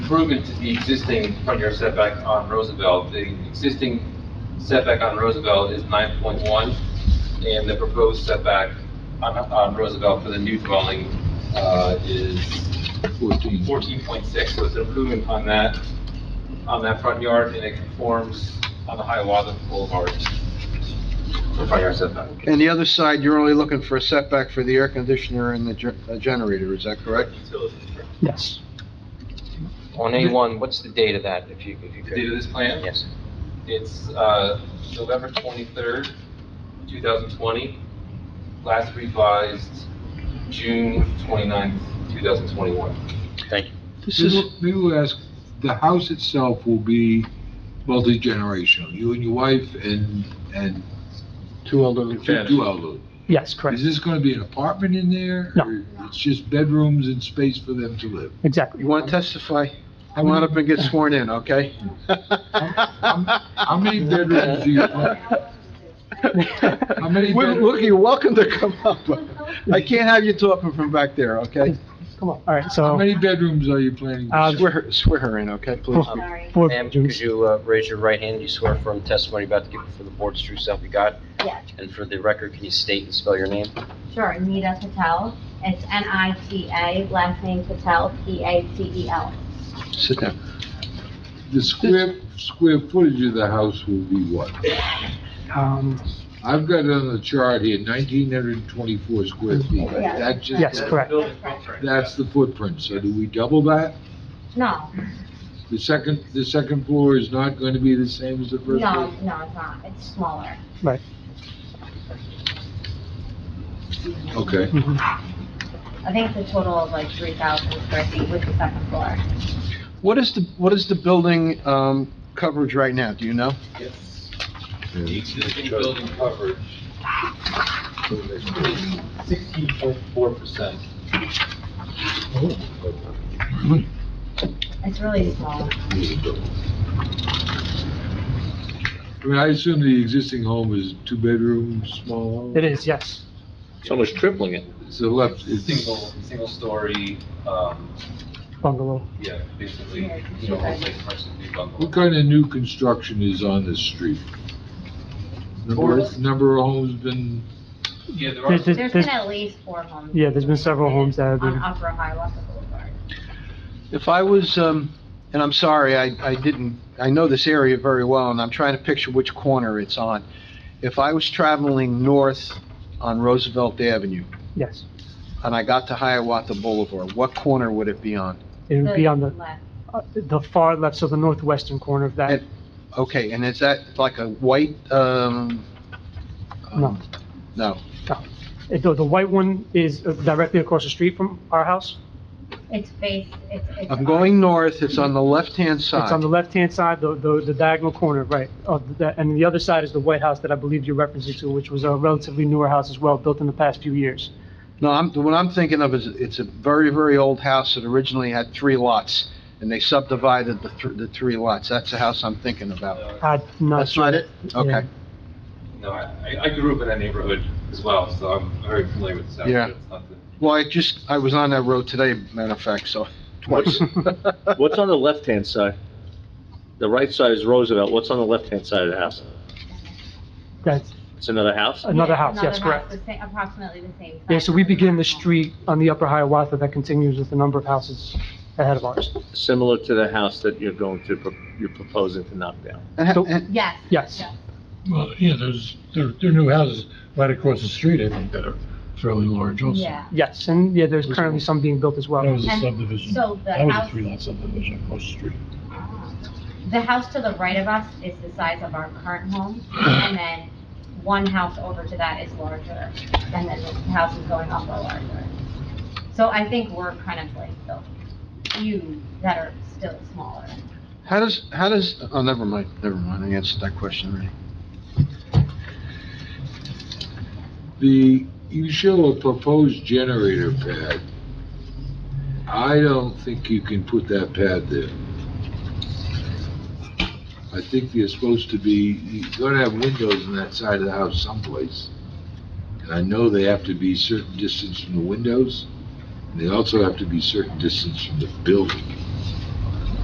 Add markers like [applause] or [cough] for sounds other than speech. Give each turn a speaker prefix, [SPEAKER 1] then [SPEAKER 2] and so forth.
[SPEAKER 1] improvement to the existing front yard setback on Roosevelt. The existing setback on Roosevelt is nine point one, and the proposed setback on, on Roosevelt for the new dwelling, uh, is
[SPEAKER 2] Fourteen.
[SPEAKER 1] fourteen point six, so it's an improvement on that, on that front yard, and it conforms on the Hiawatha Boulevard for front yard setback.
[SPEAKER 3] And the other side, you're only looking for a setback for the air conditioner and the ge- uh, generator, is that correct?
[SPEAKER 4] Yes.
[SPEAKER 5] On A1, what's the date of that, if you, if you
[SPEAKER 1] The date
[SPEAKER 5] could?
[SPEAKER 1] of this plan?
[SPEAKER 5] Yes.
[SPEAKER 1] It's, uh, November twenty-third, two thousand twenty, last revised June 29th, thousand twenty-one.
[SPEAKER 5] Thank you.
[SPEAKER 4] This
[SPEAKER 2] Maybe
[SPEAKER 4] is,
[SPEAKER 2] we'll- maybe we'll ask, the house itself will be multi-generational, you and your wife and, and
[SPEAKER 3] Two elderly
[SPEAKER 2] two two elderly.
[SPEAKER 4] yes,
[SPEAKER 2] Is
[SPEAKER 4] correct,
[SPEAKER 2] this gonna be an apartment in there?
[SPEAKER 4] No.
[SPEAKER 2] or It's just bedrooms and space for them to live?
[SPEAKER 4] exactly.
[SPEAKER 3] You want to testify?
[SPEAKER 2] How
[SPEAKER 3] Come on up
[SPEAKER 2] many,
[SPEAKER 3] and get sworn in, okay?
[SPEAKER 2] how many bedrooms do you want? How many
[SPEAKER 3] We're-
[SPEAKER 2] bedrooms?
[SPEAKER 3] Look, you're welcome to come up. I can't have you talking from back there, okay?
[SPEAKER 4] Come on, all right,
[SPEAKER 2] How
[SPEAKER 4] so,
[SPEAKER 2] many bedrooms are you planning? to
[SPEAKER 4] Uh,
[SPEAKER 2] sell?
[SPEAKER 3] Swear, her- swear her in, okay, please?
[SPEAKER 4] Oh.
[SPEAKER 6] Sorry.
[SPEAKER 4] four
[SPEAKER 5] um, Ma'am, could
[SPEAKER 4] bedrooms,
[SPEAKER 5] you uh, raise your right hand? You swear firm testimony about to give before the board's true self you got?
[SPEAKER 6] Yeah.
[SPEAKER 5] And for the record, can you state and spell your name?
[SPEAKER 6] Sure, Nita Patel. It's N-I-T-A, last name Patel, P-A-T-E-L.
[SPEAKER 3] Sit down.
[SPEAKER 2] The square, square footage of the house will be what?
[SPEAKER 4] um,
[SPEAKER 2] I've got it on the chart here, nineteen hundred and twenty-four square feet.
[SPEAKER 6] Yeah.
[SPEAKER 2] That's just-
[SPEAKER 4] yes, correct,
[SPEAKER 2] That's the footprint, so do we double that?
[SPEAKER 6] No,
[SPEAKER 2] The second, the second floor is not going to be the same as the
[SPEAKER 6] no,
[SPEAKER 2] first
[SPEAKER 6] no,
[SPEAKER 2] floor?
[SPEAKER 6] it's not. It's smaller.
[SPEAKER 2] Okay.
[SPEAKER 4] Mhm.
[SPEAKER 6] I think it's a total of like 3,000 square feet with the second floor.
[SPEAKER 3] What is the, what is the building, um, coverage right now, do you know?
[SPEAKER 1] Yes. The
[SPEAKER 2] Yeah.
[SPEAKER 1] existing building coverage is sixteen point four percent.
[SPEAKER 6] It's really small.
[SPEAKER 2] I mean, I assume the existing home is two bedrooms, small home?
[SPEAKER 4] it is, yes,
[SPEAKER 1] It's almost tripling it.
[SPEAKER 2] It's a left, it's
[SPEAKER 1] Single, single story, um,
[SPEAKER 4] bungalow.
[SPEAKER 1] yeah, basically,
[SPEAKER 6] Yeah,
[SPEAKER 1] you know,
[SPEAKER 6] okay.
[SPEAKER 1] it's like commercial new bungalow.
[SPEAKER 2] What kind of new construction is on this street? Number, number of homes been,
[SPEAKER 1] Yeah, there are.
[SPEAKER 4] There's,
[SPEAKER 1] some-
[SPEAKER 6] There's been
[SPEAKER 4] there's,
[SPEAKER 6] at least four homes.
[SPEAKER 4] yeah, there's been several homes that have
[SPEAKER 6] On
[SPEAKER 4] been,
[SPEAKER 6] Upper Hiawatha Boulevard.
[SPEAKER 3] If I was, um, and I'm sorry, I, I didn't, I know this area very well, and I'm trying to picture which corner it's on. If I was traveling north on Roosevelt Avenue,
[SPEAKER 4] yes,
[SPEAKER 3] and I got to Hiawatha Boulevard, what corner would it be on?
[SPEAKER 4] it would be on the,
[SPEAKER 6] left.
[SPEAKER 4] uh, the far left, so the northwestern corner of that,
[SPEAKER 3] And- Okay, and is that like a white, um?
[SPEAKER 4] No.
[SPEAKER 3] um, No,
[SPEAKER 4] Uh, the, the white one is uh, directly across the street from our house,
[SPEAKER 6] It's faced, it's, it's.
[SPEAKER 3] I'm
[SPEAKER 6] on-
[SPEAKER 3] going north, it's on the left-hand
[SPEAKER 4] it's on the
[SPEAKER 3] side.
[SPEAKER 4] left-hand side, the, the the diagonal corner, right, of the, and the other side is the white house that I believe you're referencing to, which was a relatively newer house as well, built in the past few years.
[SPEAKER 3] No, I'm, what I'm thinking of is, it's a very, very old house that originally had three lots, and they subdivided the, thr- the three lots, that's the house I'm thinking about.
[SPEAKER 1] Uh,
[SPEAKER 4] I'm not
[SPEAKER 3] That's
[SPEAKER 4] sure.
[SPEAKER 3] not it? Okay.
[SPEAKER 1] No, I, I- I grew up in that neighborhood as well, so I'm very familiar with the South.
[SPEAKER 3] Yeah.
[SPEAKER 1] but it's not the-
[SPEAKER 3] Well, I just, I was on that road today, matter of fact, so.
[SPEAKER 7] What's, what's on the left-hand side? The right side is Roosevelt, what's on the left-hand side of the house?
[SPEAKER 4] That's
[SPEAKER 7] It's another house?
[SPEAKER 4] another house, yes,
[SPEAKER 6] Another
[SPEAKER 4] correct.
[SPEAKER 6] house, the sa- Approximately the same.
[SPEAKER 4] Yeah,
[SPEAKER 6] size
[SPEAKER 4] so we
[SPEAKER 6] as the
[SPEAKER 4] begin the
[SPEAKER 6] second floor.
[SPEAKER 4] street on the upper Hiawatha that continues with a number of houses ahead of ours.
[SPEAKER 7] Similar to the house that you're going to, pro- you're proposing to knock down.
[SPEAKER 3] [laughs] And-
[SPEAKER 4] So-
[SPEAKER 3] and-
[SPEAKER 6] Yes.
[SPEAKER 4] Yes,
[SPEAKER 8] Well, yeah, there's, there, there are new houses right across the street, I think, that are fairly large also.
[SPEAKER 6] Yeah.
[SPEAKER 4] yes, and yeah, there's currently some being built as
[SPEAKER 8] That
[SPEAKER 4] well.
[SPEAKER 8] was a
[SPEAKER 6] And
[SPEAKER 8] subdivision.
[SPEAKER 6] so the
[SPEAKER 8] That was a
[SPEAKER 6] house-
[SPEAKER 8] three-lot subdivision across the street.
[SPEAKER 6] The house to the right of us is the size of our current home, and then one house over to that is larger, and then the houses going up are larger. So I think we're kind of like the few that are still smaller.
[SPEAKER 3] How does, how does, oh, never mind, never mind, I answered that question already.
[SPEAKER 2] the, you show a proposed generator pad. I don't think you can put that pad there. I think you're supposed to be, you're gonna have windows on that side of the house someplace. And I know they have to be certain distance from the windows, and they also have to be certain distance from the building.